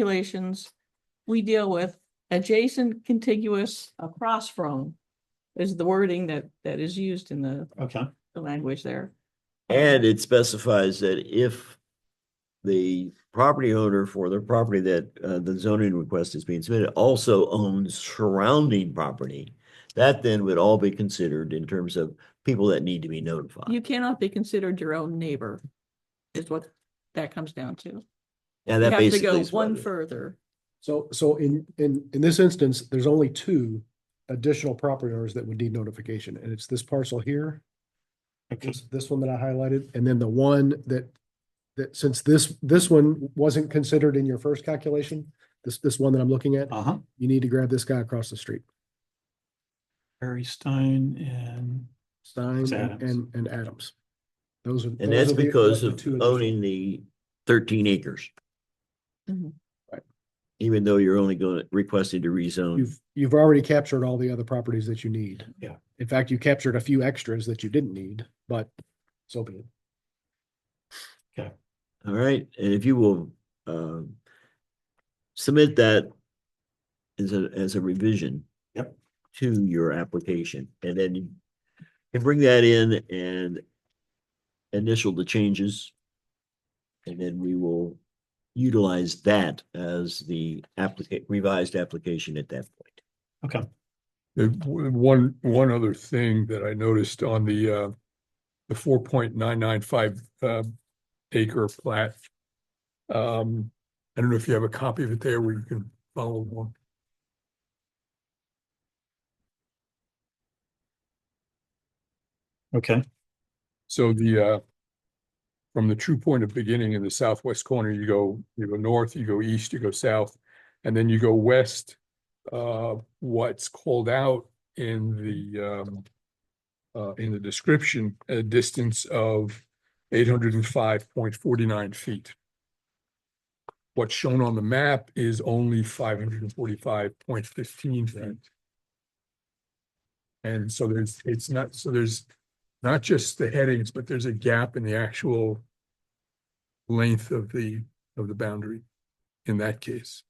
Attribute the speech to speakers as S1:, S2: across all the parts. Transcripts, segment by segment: S1: regulations, we deal with adjacent, contiguous, across from is the wording that, that is used in the,
S2: Okay,
S1: the language there.
S3: And it specifies that if the property owner for the property that uh, the zoning request is being submitted also owns surrounding property, that then would all be considered in terms of people that need to be notified.
S1: You cannot be considered your own neighbor is what that comes down to.
S3: And
S1: You
S3: that
S1: have to
S3: basically
S1: go
S3: is what
S1: one
S3: it-
S1: further.
S4: So, so in, in, in this instance, there's only two additional property owners that would need notification, and it's this parcel here.
S2: okay,
S4: This, this one that I highlighted, and then the one that, that since this, this one wasn't considered in your first calculation, this, this one that I'm looking at,
S2: uh-huh.
S4: you need to grab this guy across the street,
S2: Barry Stein and,
S4: Stein
S2: It's
S4: and,
S2: Adams.
S4: and- and Adams. Those are.
S3: And
S4: those
S3: that's
S4: are the-
S3: because
S4: the
S3: of
S4: two additional-
S3: owning the thirteen acres.
S1: Mhm.
S4: Right.
S3: Even though you're only going, requesting to rezone,
S4: You've, you've already captured all the other properties that you need.
S2: Yeah.
S4: In fact, you captured a few extras that you didn't need, but so be it.
S3: all right, and if you will, um, submit that as a, as a revision.
S2: Yep.
S3: To your application, and then you can bring that in and initial the changes. And then we will utilize that as the applicant, revised application at that point.
S2: okay,
S5: Uh, w- One, one other thing that I noticed on the, uh, the four point nine nine five, uh, acre plat. Um, I don't know if you have a copy of it there where you can follow along.
S2: okay,
S5: So the, uh, from the true point of beginning in the southwest corner, you go, you go north, you go east, you go south, and then you go west. Uh, what's called out in the, um, uh, in the description, a distance of eight hundred and five point forty-nine feet. What's shown on the map is only five hundred and forty-five point fifteen feet. And so there's, it's not, so there's not just the headings, but there's a gap in the actual length of the, of the boundary in that case.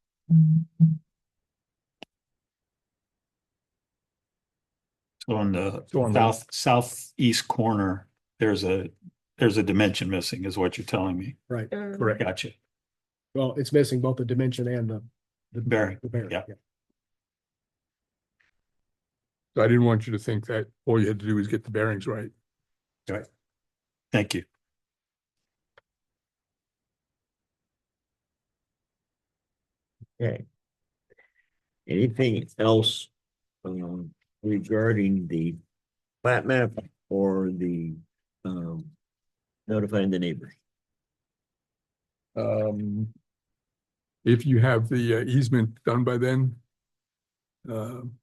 S2: so on the
S5: So on the-
S2: south, southeast corner, there's a, there's a dimension missing is what you're telling me.
S4: Right.
S1: Uh,
S5: Correct.
S2: Gotcha,
S4: Well, it's missing both the dimension and the. the
S2: Bearing,
S4: The bearing,
S2: yeah.
S4: yeah.
S5: So I didn't want you to think that all you had to do was get the bearings right.
S2: thank you.
S3: Okay. Anything else um regarding the plat map or the um notifying the neighbors?
S5: Um, if you have the uh, easement done by then, um,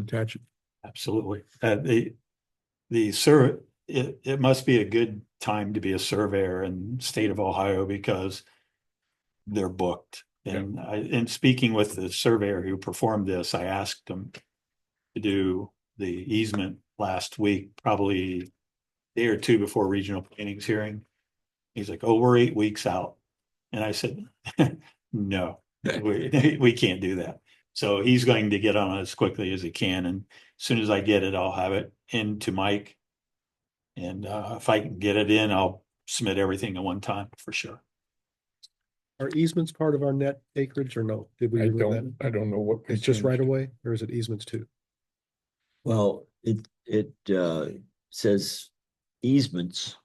S5: attach it.
S2: Absolutely. Uh, the, the sur, it, it must be a good time to be a surveyor in state of Ohio because they're booked. And I, in speaking with the surveyor who performed this, I asked him to do the easement last week, probably day or two before regional planning's hearing. He's like, oh, we're eight weeks out. And I said, no, we, we can't do that. So he's going to get on it as quickly as he can and soon as I get it, I'll have it into Mike. And uh, if I can get it in, I'll submit everything at one time for sure.
S4: Are easements part of our net acreage or no? Did we
S5: I
S4: remove
S5: don't,
S4: that?
S5: I don't know what.
S4: It's just
S5: changed.
S4: right away, or is it easements too?
S3: Well, it it uh says easements.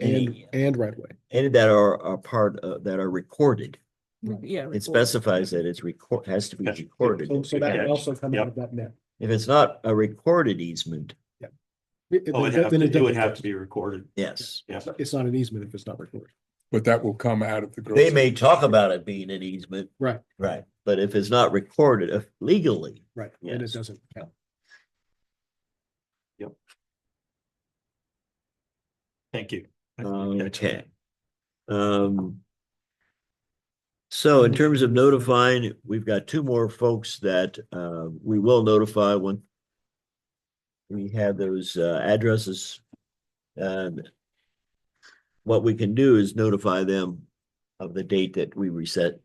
S4: And,
S3: Any,
S4: and right away.
S3: any that are are part of that are recorded.
S1: Yeah.
S3: It
S1: record.
S3: specifies that it's record, has to be
S2: That's-
S3: recorded.
S4: So, so that
S2: Yeah.
S4: would also come out
S2: Yep.
S4: of that net.
S3: If it's not a recorded easement,
S4: It- it-
S2: Oh, it'd
S4: then
S2: have to-
S4: it
S2: it would
S4: doesn't-
S2: have to be recorded.
S3: yes.
S2: Yeah.
S4: It's not an easement if it's not recorded.
S5: But that will come out of the.
S3: They
S5: grocery
S3: may talk
S5: district.
S3: about it being an easement.
S4: Right.
S3: Right, but if it's not recorded uh, legally,
S4: Right, and
S3: Yes.
S4: it doesn't count.
S2: Thank you.
S3: Okay. Um. So in terms of notifying, we've got two more folks that uh we will notify when. We have those uh addresses. And. What we can do is notify them of the date that we reset